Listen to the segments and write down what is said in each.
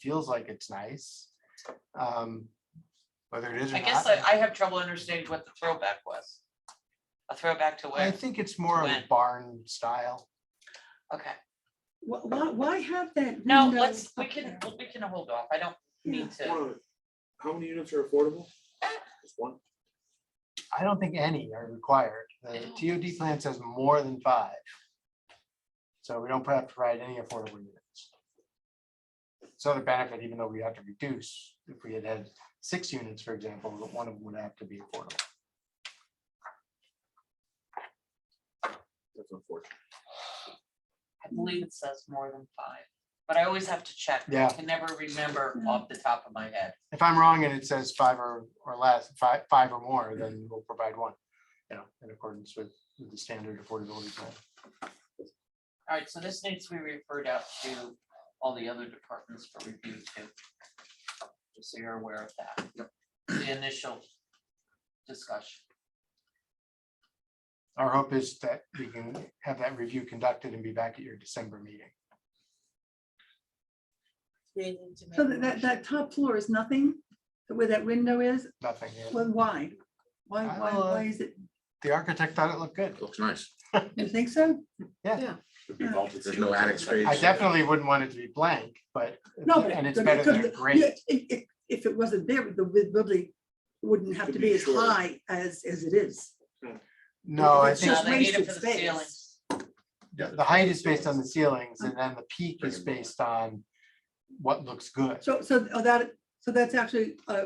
feels like it's nice. Um, whether it is or I not. guess I, I have trouble understanding what the throwback was. A throwback to I where? think it's more of a When? barn style. Okay, Why, why, why have that? no, window let's, we up can, there? we can hold off. I don't Yeah. need to. How many units are affordable? Just one. I don't think any are required. The I don't. TOD plan says more than five. So we don't have to provide any affordable units. So the benefit, even though we have to reduce, if we had had six units, for example, one of them would have to be affordable. That's unfortunate. I believe it says more than five, but I always have to check. Yeah. I can never remember off the top of my head. If I'm wrong and it says five or, or less, five, five or more, then we'll provide one, you know, in accordance with with the standard affordability plan. All right, so this needs to be referred out to all the other departments for review too. Just so you're aware of that. The initial discussion. Our hope is that we can have that review conducted and be back at your December meeting. So that, that, that top floor is nothing, where that window is, Nothing. here. well, why? Why, I why, don't know. why is it, The architect thought it looked good. Looks nice. you think so? Should be vaulted. Uh, There's no attic space. uh, I definitely wouldn't want it to be blank, but, No, but. and it's but- better because than the- great. yeah, If, if, if it wasn't there, the wi- building wouldn't have Could to be be as shorter. high as, as it is. No, I it's think No, they need it wasted for the space. ceilings. the the height is based on the ceilings and then the peak is based on what looks good. So, so oh, that, so that's actually, uh,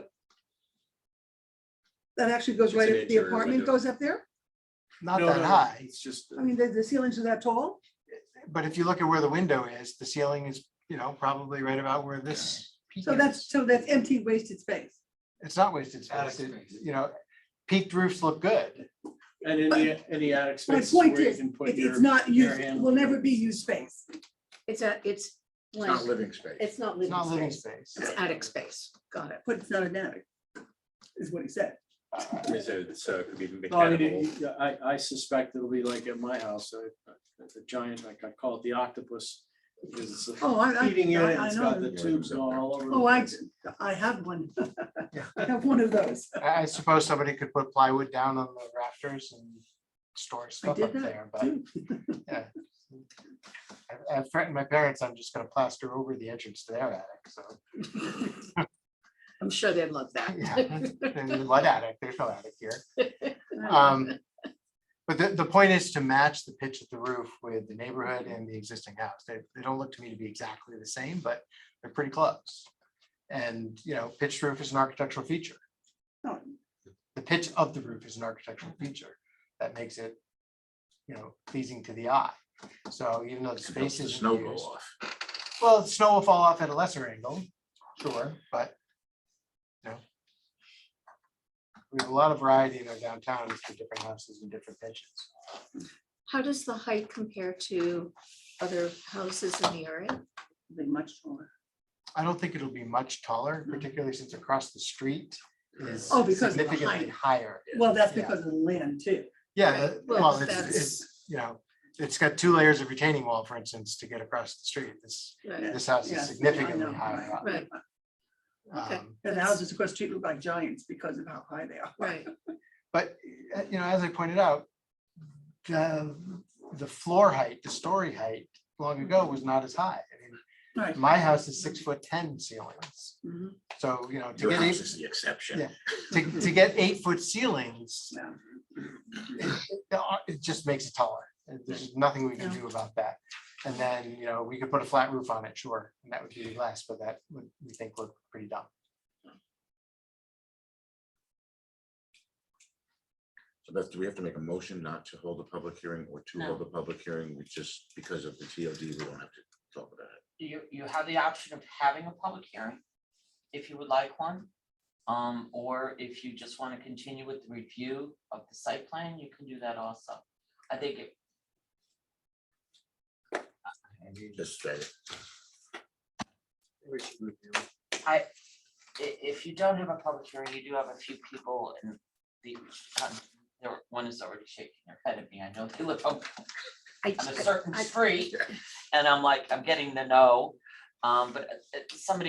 that actually goes It's right, an up- the interior apartment window. goes up there? Not that high, It's just. I mean, the, the ceilings are that tall? but if you look at where the window is, the ceiling is, you know, probably right about where this. peak So is. that's, so that's empty wasted space. It's not wasted space. Attic It- space. You know, peaked roofs look good. And any, any attic My space point where you is, can it- put your. it's not your used, hand- will never be used space. It's a, it's blank. living space. It's not It's not living living space. space. It's attic space. Got it. But it's not an attic, is what he said. So it could Oh, be No, I mean, mechanical. it- yeah, I, I suspect it'll be like at my house, I- I- the giant, like I call it the octopus. Because it's a Oh, I, I, heating unit, I I it's got the know, tubes going all over. the Oh, I- place. I have one. Yeah. I have one of those. I I suppose somebody could put plywood down on the rafters and store stuff did up that there, but. too. I- I've threatened my parents, I'm just gonna plaster over the entrance to their attic, so. I'm sure they'd love Yeah. that. And the Mud attic, there's no attic here. I Um, But the, the point is to match the pitch of the roof with the neighborhood and the existing house. They, they don't look to me to be exactly the same, but they're pretty close. And, you know, pitched roof is an architectural feature. Oh. The pitch of the roof is an architectural feature that makes it, you know, pleasing to the eye. So even though the space is. Snow go off. Well, the snow will fall off at a lesser angle, sure, but. You know. We have a lot of variety in our downtown, it's the different houses and different pitches. How does the height compare to other houses in the area? think Much taller. I don't think it'll be much taller, particularly since across the street is Oh, Mm-hmm. because of the significantly height. higher. Well, that's Yeah. because of the land too. Yeah, uh, Well, well, it's, that's- it's, you know, it's got two layers of retaining wall, for instance, to get across the street. This, Right, this house Yeah, is I know, significantly higher up. right, okay. Um, And the That's- houses across the street look like giants because of how high they are. right. But, uh, you know, as I pointed out, the, the floor height, the story height long ago was not as high. I Right. mean, My house is six foot ten ceilings. Mhm. So, you know, to Your get house eight, is the exception. Yeah. to, to get eight foot ceilings, Yeah. it- it just makes it taller. And There's nothing we can do about that. And then, you know, we could put a flat roof on it, sure, and that would be less, but that would, we think look pretty dumb. So that's, do we have to make a motion not to hold a public hearing or to hold a public hearing? We just, because of the TOD, we don't have to talk about it. you, you have the option of having a public hearing, if you would like one. Um, or if you just want to continue with the review of the site plan, you can do that also. I think it, Just say it. i- if you don't have a public hearing, you do have a few people and the, um, there, one is already shaking their head at me, I know they live on I on a I- certain I- street. And I'm like, I'm getting the no, um, but uh, uh, somebody